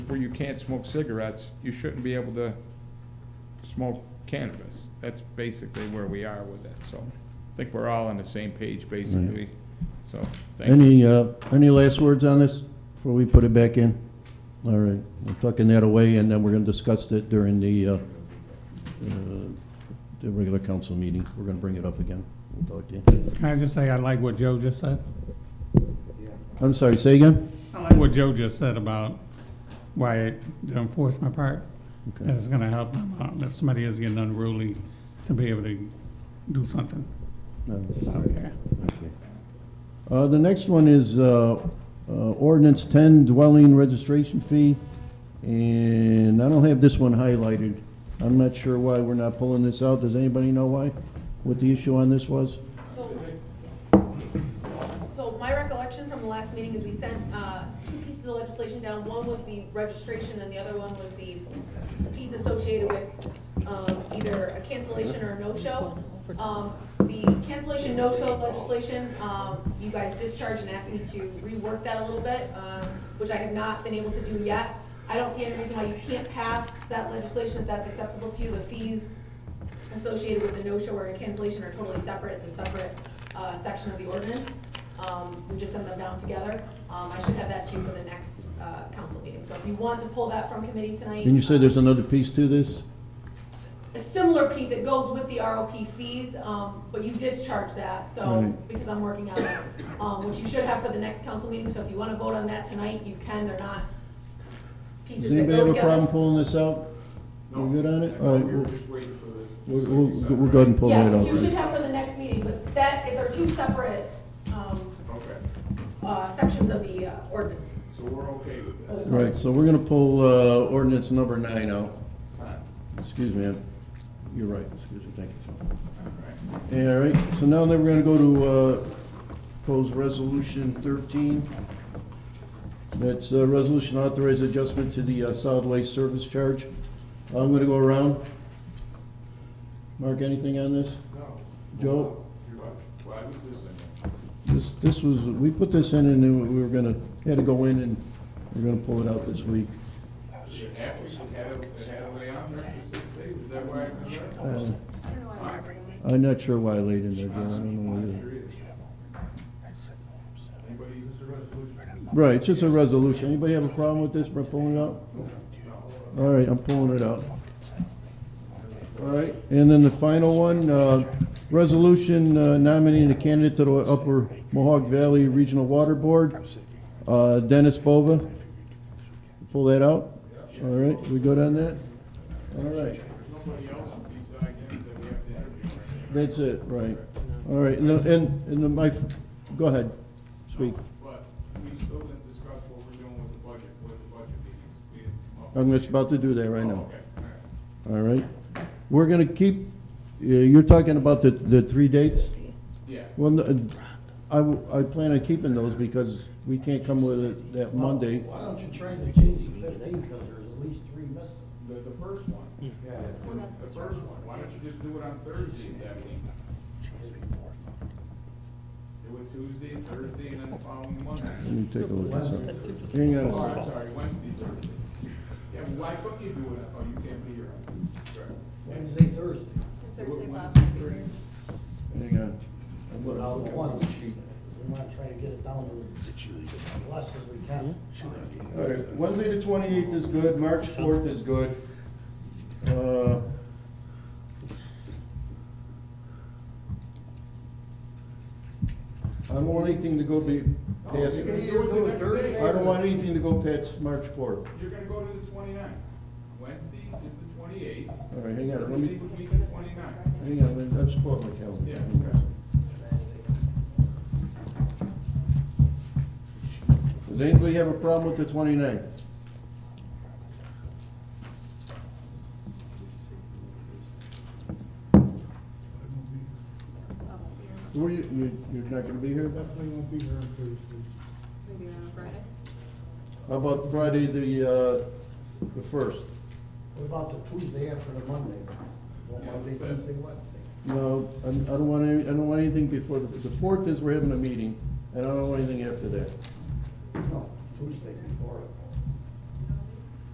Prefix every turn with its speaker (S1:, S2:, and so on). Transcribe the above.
S1: where you can't smoke cigarettes, you shouldn't be able to smoke cannabis. That's basically where we are with it, so I think we're all on the same page, basically, so, thank you.
S2: Any, uh, any last words on this before we put it back in? All right, we're tucking that away, and then we're gonna discuss it during the, uh, uh, the regular council meeting. We're gonna bring it up again. We'll talk to you.
S3: Can I just say, I like what Joe just said?
S2: I'm sorry, say again?
S3: I like what Joe just said about why the enforcement part
S2: Okay.
S3: is gonna help them out. If somebody is getting unruly, to be able to do something.
S2: No.
S3: So, yeah.
S2: Okay. Uh, The next one is uh, uh, ordinance 10 dwelling registration fee, and I don't have this one highlighted. I'm not sure why we're not pulling this out. Does anybody know why? What the issue on this was?
S4: So, so my recollection from the last meeting is we sent, uh, two pieces of legislation down. One was the registration and the other one was the fees associated with, um, either a cancellation or a no-show. Um, the cancellation, no-show legislation, um, you guys discharged and asked me to rework that a little bit, um, which I have not been able to do yet. I don't see any reason why you can't pass that legislation if that's acceptable to you. The fees associated with the no-show or cancellation are totally separate, it's a separate, uh, section of the ordinance. Um, we just send them down together. Um, I should have that to you for the next, uh, council meeting. So if you want to pull that from committee tonight.
S2: Didn't you say
S4: um,
S2: there's another piece to this?
S4: A similar piece, it goes with the ROP fees, um, but you discharge that, so,
S2: Right.
S4: because I'm working on it. Um, which you should have for the next council meeting, so if you wanna vote on that tonight, you can, they're not pieces
S2: Does
S4: that
S2: anybody
S4: go
S2: have a
S4: together.
S2: problem pulling this out? We're good on it? All right,
S1: We
S2: we'll,
S1: were just waiting for the-
S2: we'll- we'll we'll go ahead and pull
S4: Yeah,
S2: that
S4: which you
S2: out.
S4: should have for the next meeting, but that, they're two separate, um,
S1: Okay,
S4: uh, sections of the uh, ordinance.
S1: so we're okay with
S4: of
S1: this.
S4: the code.
S2: Right, so we're gonna pull uh, ordinance number nine out.
S1: Fine.
S2: Excuse me, I'm- you're right, excuse me, thank you, Tom.
S1: All right.
S2: All right, so now then we're gonna go to, uh, propose resolution thirteen. That's a resolution authorized adjustment to the uh, solid waste service charge. I'm gonna go around. Mark, anything on this?
S1: No.
S2: Joe?
S1: You're right. Well, I was listening.
S2: This, this was, we put this in and then we were gonna, had to go in and we're gonna pull it out this week.
S1: It happened, it had a- it had a way on there for six days. Is that why I was there?
S2: Uh, I'm not sure why I laid in there, Joe, I don't know either.
S1: Sure is. Anybody use the resolution?
S2: Right, it's just a resolution. Anybody have a problem with this, we're pulling it out? All right, I'm pulling it out. All right, and then the final one, uh, resolution uh, nominating a candidate to the Upper Mohawk Valley Regional Water Board, uh, Dennis Bova. Pull that out? All right, we good on that? All right,
S1: Nobody else besides him that we have to interview.
S2: that's it, right. All right, and, and, and my, go ahead, speak.
S1: But we still didn't discuss what we're doing with the budget, with the budget meetings. We didn't come up-
S2: I'm just about to do that right now.
S1: Okay, all right.
S2: All right. We're going to keep, uh, you're talking about the, the three dates?
S1: Yeah.
S2: Well, no, I, w- I plan on keeping those because we can't come with it that Monday.
S5: Why don't you try to change the fifteen, because there's at least three missing.
S1: The, the first one.
S5: Yeah.
S1: The first one, why don't you just do it on Thursday, Debbie? Do it Tuesday, Thursday, and then the following Monday.
S2: Let me take a look at something. Hang on a
S1: Oh, I'm
S2: second.
S1: sorry, Wednesday, Thursday. Yeah, why couldn't you do it, oh, you can't be here. on Tuesday. Right.
S5: Wednesday, Thursday.
S1: Wednesday,
S6: Thursday, Bob.
S1: Thursday.
S2: Hang on. I'm
S5: But I'll
S2: looking.
S5: go one. We want to try to get it down to less as we can.
S2: All right, Wednesday the twenty-eighth is good, March fourth is good. Uh, I don't want anything to go be
S1: No,
S2: past,
S1: you
S2: I
S1: can either Oh, do it Thursday.
S2: don't want anything to go past March fourth.
S1: You're gonna go to the 29th. Wednesday is the twenty-eighth.
S2: All right, hang on, let
S1: Thursday
S2: me,
S1: would be the 29th.
S2: hang on, let me- I'll just pull up my calendar.
S1: Yeah, okay.
S2: Does anybody have a problem with the twenty-ninth? Were you, you, you're not gonna be here?
S5: Definitely won't be here on Thursday.
S6: Maybe on Friday?
S2: How about Friday, the, uh, the first?
S5: What about the Tuesday after the Monday? Well, Monday, Tuesday, Wednesday.
S2: No, I, I don't want any, I don't want anything before, the, the fourth is we're having a meeting, and I don't want anything after that.
S5: No, Tuesday before it.